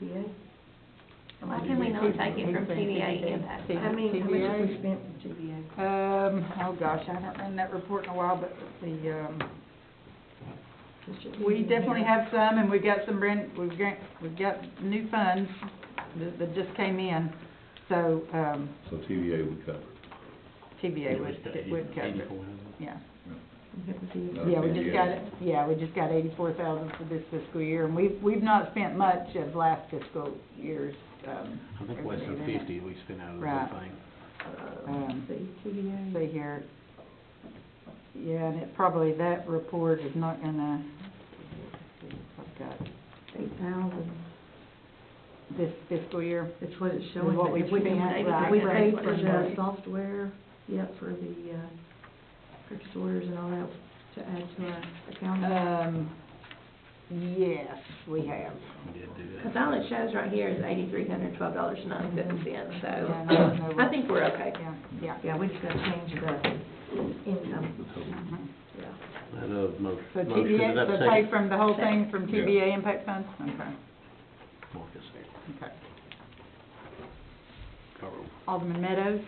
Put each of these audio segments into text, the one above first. CBA? How Why much can we did not take it from It's been CDA CDA. impact? I mean, how much have we CBA? spent from CBA? Um, oh gosh, I haven't run that report in a while, but the, um, we definitely have some, and we got some brand, we've got, we've got new funds that, that just came in, so, um, So TVA would cover it. TBA would, Eighty- would cover it, 84,000. Uh, yeah. Oh, Yeah, we just got, TBA. yeah, we just got eighty-four thousand for this fiscal year, and we've, we've not spent much of last fiscal year's, um, I think less than everything in it. fifty we spent out of the Right. whole thing. Um, See, CBA. see here. Yeah, and it probably, that report is not gonna, I've got Eight thousand, this fiscal year. that's what it's showing. what we've If we- spent, if right, We right, paid for right. the software, yeah, for the, uh, purchase orders and all that to add to our account. Um, yes, we have. We did do Cause that. all it shows right here is eighty-three hundred twelve dollars and ninety-seven cents, Yeah, so no, no, I think we're okay. Yeah, yeah. Yeah, we just gotta change the income, Mhm. yeah. I know, mo- motion, So did TBA, that so pay second? from the whole thing, from Yeah. TBA impact funds? Okay, Marcus, okay. call roll. Alderman Meadows?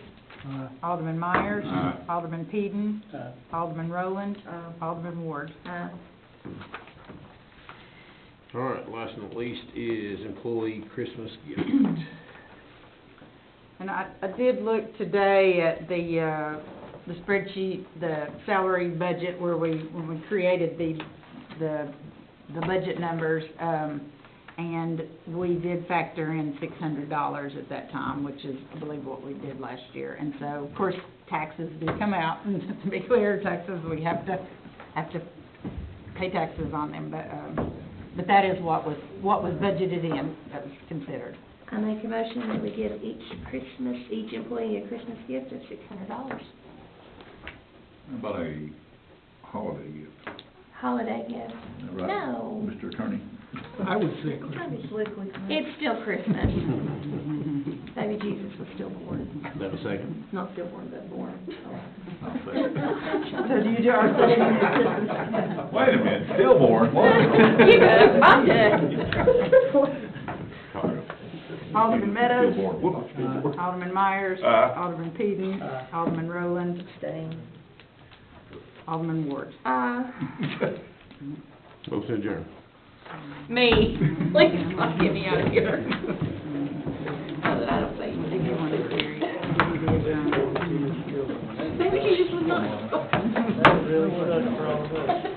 Alderman Myers? Aye. Alderman Peden? Alderman Rowland? Uh, Alderman Ward? uh, All right, last but not least is employee Christmas gift. And I, I did look today at the, uh, the spreadsheet, the salary budget where we, when we created the, the, the budget numbers, um, and we did factor in six hundred dollars at that time, which is, I believe, what we did last year. And so, of course, taxes do come out, and to be clear, taxes, we have to, have to pay taxes on them, but, um, but that is what was, what was budgeted in, that was considered. I make a motion that we give each Christmas, each employee a Christmas gift of six hundred dollars. How about a holiday gift? Holiday gift. Isn't that right, Oh, No. Mr. Attorney? I would say kind Christmas. of slickly, kind of- It's still Christmas. Baby Jesus was still born. That a second? Not still born, but born. So do you do our Wait a minute, stillborn, what? You good, I'm good. Call roll. Alderman Meadows. Stillborn, whoop, Uh, stillborn. Alderman Myers. Aye. Alderman Peden. Aye. Alderman Rowland. Alderman Ward. Uh, Motion adjourned. me, please, don't get me out of here. Now that I don't say anything. Baby Jesus was not. That really sucks for all of us.